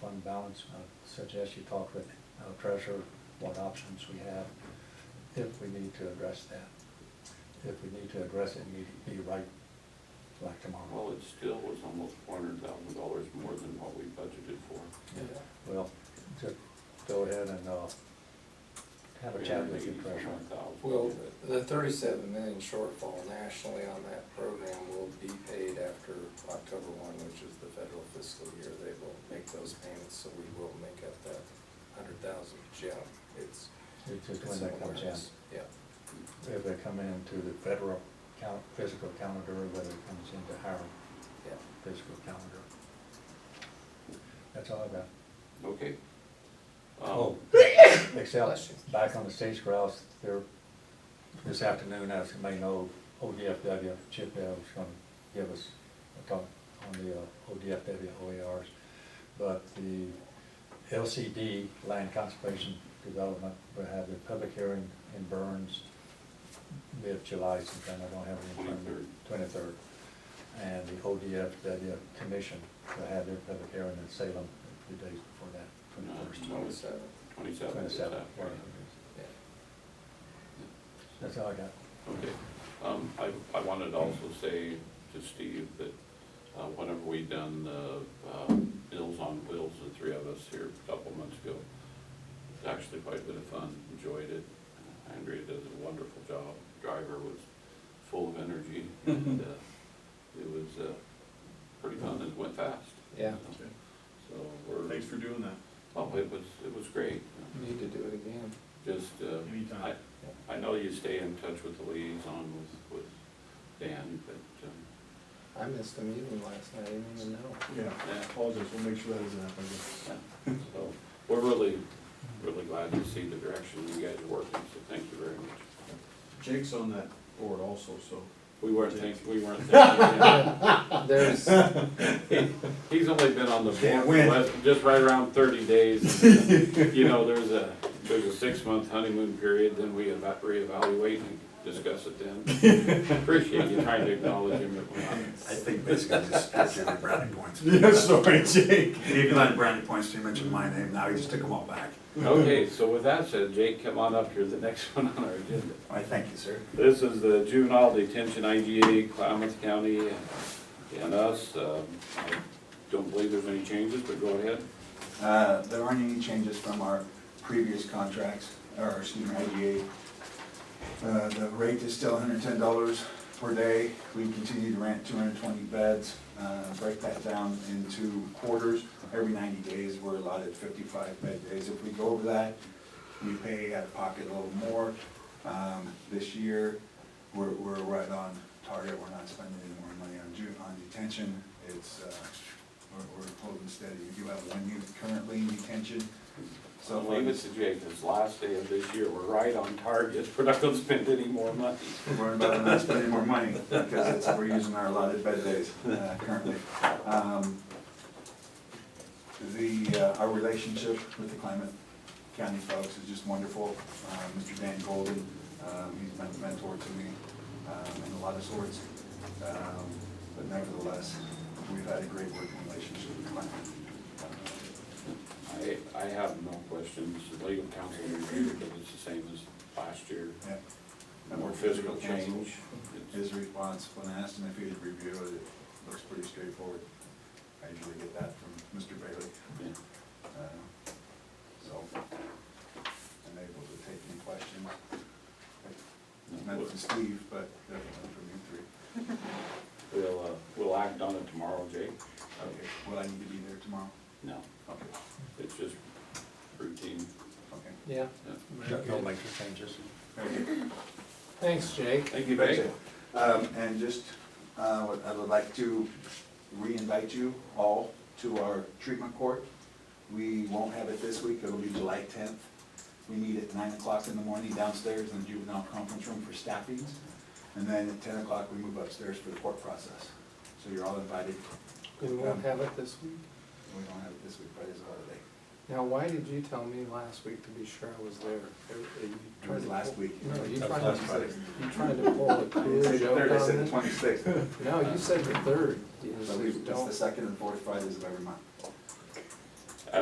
fund balance, I suggest you talk with uh, treasurer, what options we have, if we need to address that. If we need to address it, need to be right, like tomorrow. Well, it still was almost four hundred thousand dollars more than what we budgeted for. Well, just go ahead and, uh, have a chat with your treasurer. $380,000. Well, the thirty-seven million shortfall nationally on that program will be paid after October one, which is the federal fiscal year. They will make those payments, so we will make up that hundred thousand jump. It's. It's just it's when that comes somewhere in. else. Yeah. If they come into the federal count, fiscal calendar, or whether it comes into our Yeah. fiscal calendar. That's all I got. Okay. Oh, Um, except Bless you. back on the stage grouse, there, this afternoon, as you may know, ODFW, Chip Bell was gonna give us a talk on the uh, ODFW OERs. But the LCD, Land Conservation Development, will have their public hearing in Burns mid-July sometime, I don't have any. 23rd. Twenty-third. And the ODFW Commission will have their public hearing in Salem a few days before that, twenty-first. Twenty-seven, Twenty-seven is that, Twenty-seven. right? yeah. That's all I got. Okay. Um, I, I wanted to also say to Steve that uh, whenever we done the uh, Meals on Wheels, the three of us here a couple months ago, it's actually quite a bit of fun, enjoyed it. Andrea does a wonderful job. Driver was full of energy and uh, it was uh, pretty fun and went fast. Yeah. So we're, Thanks for doing that. oh, it was, it was great. Need to do it again. Just, uh, I, Anytime. I know you stay in touch with the liaison with, with Dan, but, um, I missed a meeting last night, I didn't even know. Yeah, apologize, we'll make sure that doesn't happen yeah. um, so, we're really, really glad to see the direction you guys are working, so thank you very much. Jake's on that board also, so. We weren't thinking, we weren't thinking, There's, he- he's only been on the board, Can't for win. less- just right around thirty days. You know, there's a, there's a six-month honeymoon period, then we eva- reevaluate and discuss it then. Appreciate you trying to acknowledge him, but we're not. I think basically just gives every brownie points. Yeah, sorry, Jake. Gave you nine brownie points, you mentioned my name, now you just took them all back. Okay, so with that said, Jake, come on up here, the next one on our agenda. I thank you, sir. This is the juvenile detention IGA, Klamath County, and us. Um, I Don't believe there's any changes, but go ahead. Uh, There aren't any changes from our previous contracts, or excuse me, IGA. Uh, The rate is still $110 per day. We continue to rent 220 beds, uh, break that down into quarters. Every 90 days, we're allotted 55 bed days. If we go over that, we pay out of pocket a little more. Um, This year, we're, we're right on target, we're not spending any more money on ju, on detention. It's, uh, we're, we're holding steady. We do have one youth currently in detention. So So leave it to Jake, it's last day of this year, we're right on target, we're not gonna spend any more money. We're about not spending more money because it's, we're using our allotted bed days uh, currently. Um, The, uh, our relationship with the Climate County folks is just wonderful. Uh, Mr. Dan Golden, um, he's been a mentor to me um, in a lot of sorts. Um, But nevertheless, we've had a great working relationship with Uh, Climate. I, I have no questions, The legal counsel reviewed it, but it's the same as last year. Yeah. More physical change. It's- His response, when I asked him if he would review it, it looks pretty straightforward. I usually get that from Mr. Bailey. yeah. Uh, So, I'm able to take any questions. Not from Steve, but definitely from you three. We'll, uh, we'll act on it tomorrow, Jake. Okay, will I need to be there tomorrow? No, Okay, it's just routine. okay. yeah. Yeah. very Don't good. make the changes. Very good. Thanks, Jake. Thank you, That's Jake. it. Um, and just, uh, what I would like to re-invite you all to our treatment court. We won't have it this week, it'll be July tenth. We meet at nine o'clock in the morning downstairs in the juvenile conference room for staffings. And then at ten o'clock, we move upstairs for the court process. So you're all invited. Um, We won't have it this week. We don't have it this week, Friday's a holiday. Now, why did you tell me last week to be sure I was there? Are- are you It was trying to last pull- week. No, you That was tried last to, Friday. you tried to pull a I didn't cool say the joke third, I said on the me? twenty-sixth. No, you said the third. You So we, said it's the don't, second and fourth Fridays of every month.